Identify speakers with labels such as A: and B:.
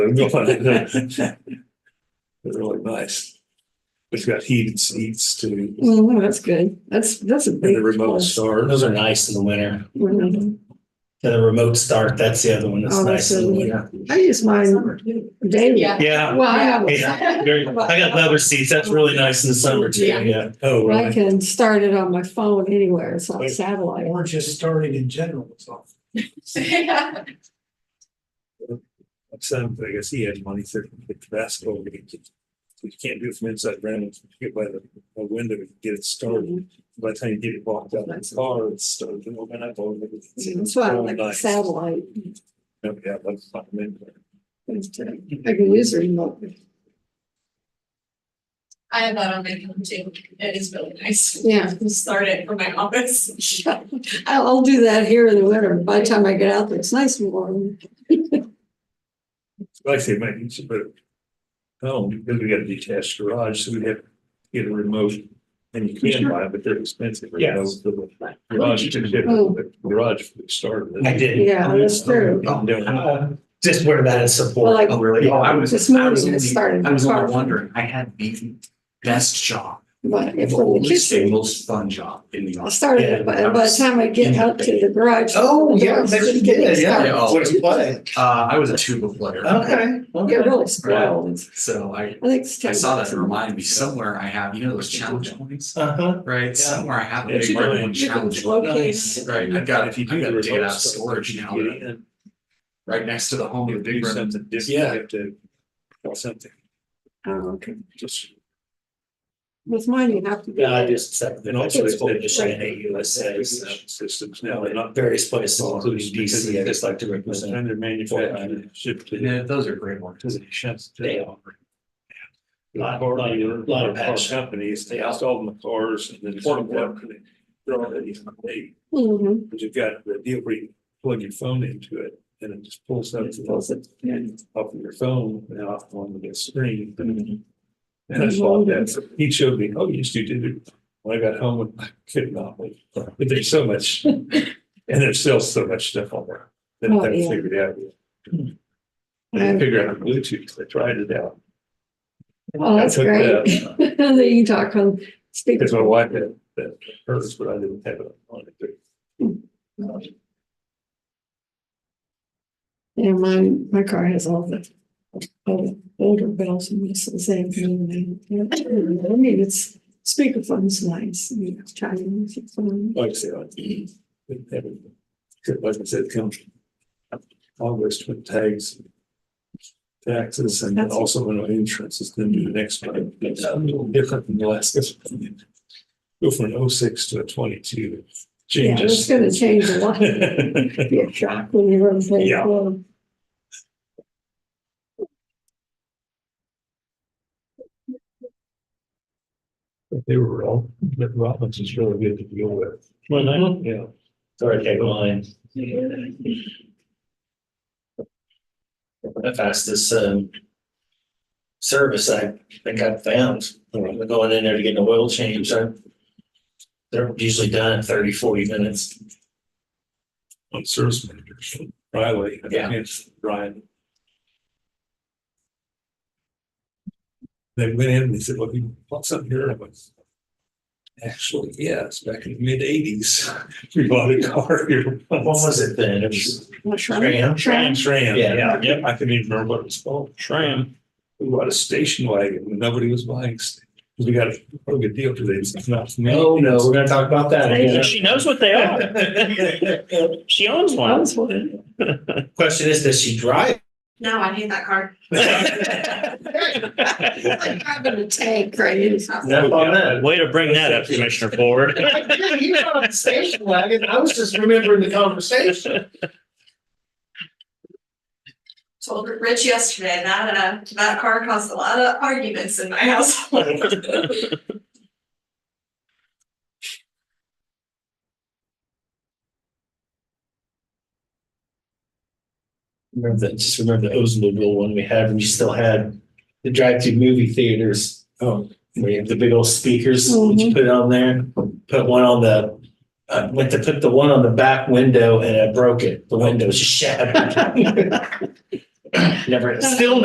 A: They're really nice. It's got heated seats too,
B: Well, Oh, that's good. That's, that's a
A: and
B: big.
A: a remote
B: plus.
A: start.
C: Those are nice in the winter.
B: Mhm.
C: And the remote start, that's the other one that's
B: Oh,
C: nice in the
B: that's
C: winter.
B: I use mine daily.
D: Yeah.
C: Yeah.
B: Well, I have,
C: Yeah. Very, I got leather seats. That's really nice in the summer too.
D: Yeah.
C: Yeah.
A: Oh,
B: I
A: really?
B: can start it on my phone anywhere. It's on
A: Wait.
B: satellite.
E: Or just starting in general, it's all.
D: Yeah.
A: My son, I guess he had money for the basketball game. You can't do it from inside Random. You get by the a window and get it
F: Oh,
A: started. By the time you get it walked out of the car, it's started. And open up all of it.
B: That's why I
A: Oh,
B: like the
A: nice.
B: satellite.
A: Oh, Yeah, that's fine. Then
B: I can use the remote.
D: I have that on my phone too. It is really nice.
B: Yeah,
D: Start it from my office.
B: I'll, I'll do that here in the winter. By the time I get out there, it's nice and warm.
A: Like I say, might need to put it. Oh, because we got a detached garage, so we have to get a remote. And you can buy it, but they're expensive.
C: Yes.
A: The Garage, to get
B: Oh.
A: the garage started.
C: I did.
B: Yeah, that's true.
A: I'm doing it.
C: Uh, Just wear that as
B: Well,
C: support.
B: like-
F: Oh, really? Oh, I was,
B: This
F: I
B: morning
F: was
B: it
F: only,
B: started.
F: I was
B: far
F: only
B: from-
F: wondering, I had the best job,
B: But
F: the
B: if we're in the
F: oldest and
B: kitchen,
F: most fun job in the
B: I'll
F: office.
B: start
C: Yeah,
B: it, by, by the time I get
F: yeah.
B: up to the garage.
C: Oh,
F: Oh,
B: the doors are getting started.
F: Yeah, Oh,
C: What's play?
F: Uh, I was a tuba player.
C: Okay.
B: You're really spoiled.
F: So I,
B: I think it's.
F: I saw that, it
B: time.
F: reminded me somewhere I have, you know, those challenge points,
C: Uh huh.
F: right? Somewhere I have. a
A: Yeah,
F: big
A: you
F: mark
A: can-
F: one
B: You can
F: challenge.
B: locate
C: Nice.
B: it.
F: Right, I've got,
A: If
F: I've
A: you do
F: got to
A: the
F: dig it out of
A: remote stuff,
F: storage
A: you
F: now,
A: get
F: but
A: in.
F: right next to the home of
A: You
F: the
A: do
F: big room.
A: something different, you
F: Yeah.
A: have to, or something,
B: Oh, okay.
A: just,
B: With mine, you have to.
C: Yeah, I just accepted.
A: and also.
C: it's
A: they-
C: published in USA, so
A: Systems now, they're not.
C: various places, including DC, I just like to represent.
A: And they're manufactured, shipped to.
F: Yeah, those are great ones.
A: Cause it ships. to-
C: They are. Lot,
A: Or-
C: lot,
A: or-
C: lot
A: or
C: of passion.
A: Companies, they install them in cars and then.
C: Or- or-
A: They're already, they,
B: Mhm.
A: but you've got the deal where you plug your phone into it and it just pulls up.
B: It pulls it, yeah.
A: Off of your phone and off on the screen.
B: Mm-hmm.
A: And I saw that, he showed me, oh, you used to do it. When I got home, I could not believe, but there's so much, and there's still so much stuff on there. That
B: Oh,
A: I
B: yeah.
A: figured out. I
B: Um,
A: didn't figure out Bluetooth, I tried it out.
B: Oh, that's
A: I took
B: great.
A: the-
B: Then you can talk on speaker.
A: Because my wife had that hers, but I didn't have it on it.
B: Yeah, my, my car has all the all the older bells and whistles. They have new name. Yeah, I mean, it's speakerphone's nice, you know, Chinese music phone.
A: Like I said, I didn't have it. Except like I said, comes August with tags. Taxes and then also when our insurance is gonna be the next one. It's a little different than the last. Go from an oh six to a twenty two.
B: Yeah, it's
A: Changes.
B: gonna change a lot.
A: Well,
B: Be a shock when you're on page
A: Yeah.
B: one.
A: They were all, but Robinson's really good to deal with.
C: Well, I-
A: Yeah.
C: Sorry, take mine. The fastest, um, service I think I've found, We're going in there to get an oil change, I, they're usually done in 30, 40 minutes.
A: On service managers, Riley. I think
C: Yeah.
A: it's Ryan. They went in and they said, well, you bought something here. I went, Actually, yes, back in the mid eighties, we bought a car here.
C: What was it then? It was
B: Well, Shrine-
C: Graham?
A: Tram, tram.
C: Yeah.
A: Yep, I couldn't even remember what it was called. Tram. We bought a station wagon. and Nobody was buying. st- 'cause We got a real good deal today. It's not.
C: No, Oh, no, we're gonna talk about that. again.
G: She knows what they are. She owns
B: That
G: one.
B: was one.
C: Question is, does she drive?
D: No, I hate that car.
B: It's like Driving a tank, right?
C: No, on that.
G: Way to bring that up, Commissioner Ford.
C: You were on the station wagon. I was just remembering the conversation.
D: Told Rich yesterday that, uh, that car caused a lot of arguments in my household.
C: Remember that, just remember the Oldsmobile one we had when you still had the drive-through movie theaters. Oh. Where you have the big old speakers, would you put it on there? Put one on the, I went to put the one on the back window and I broke it. The window just shattered. Never, still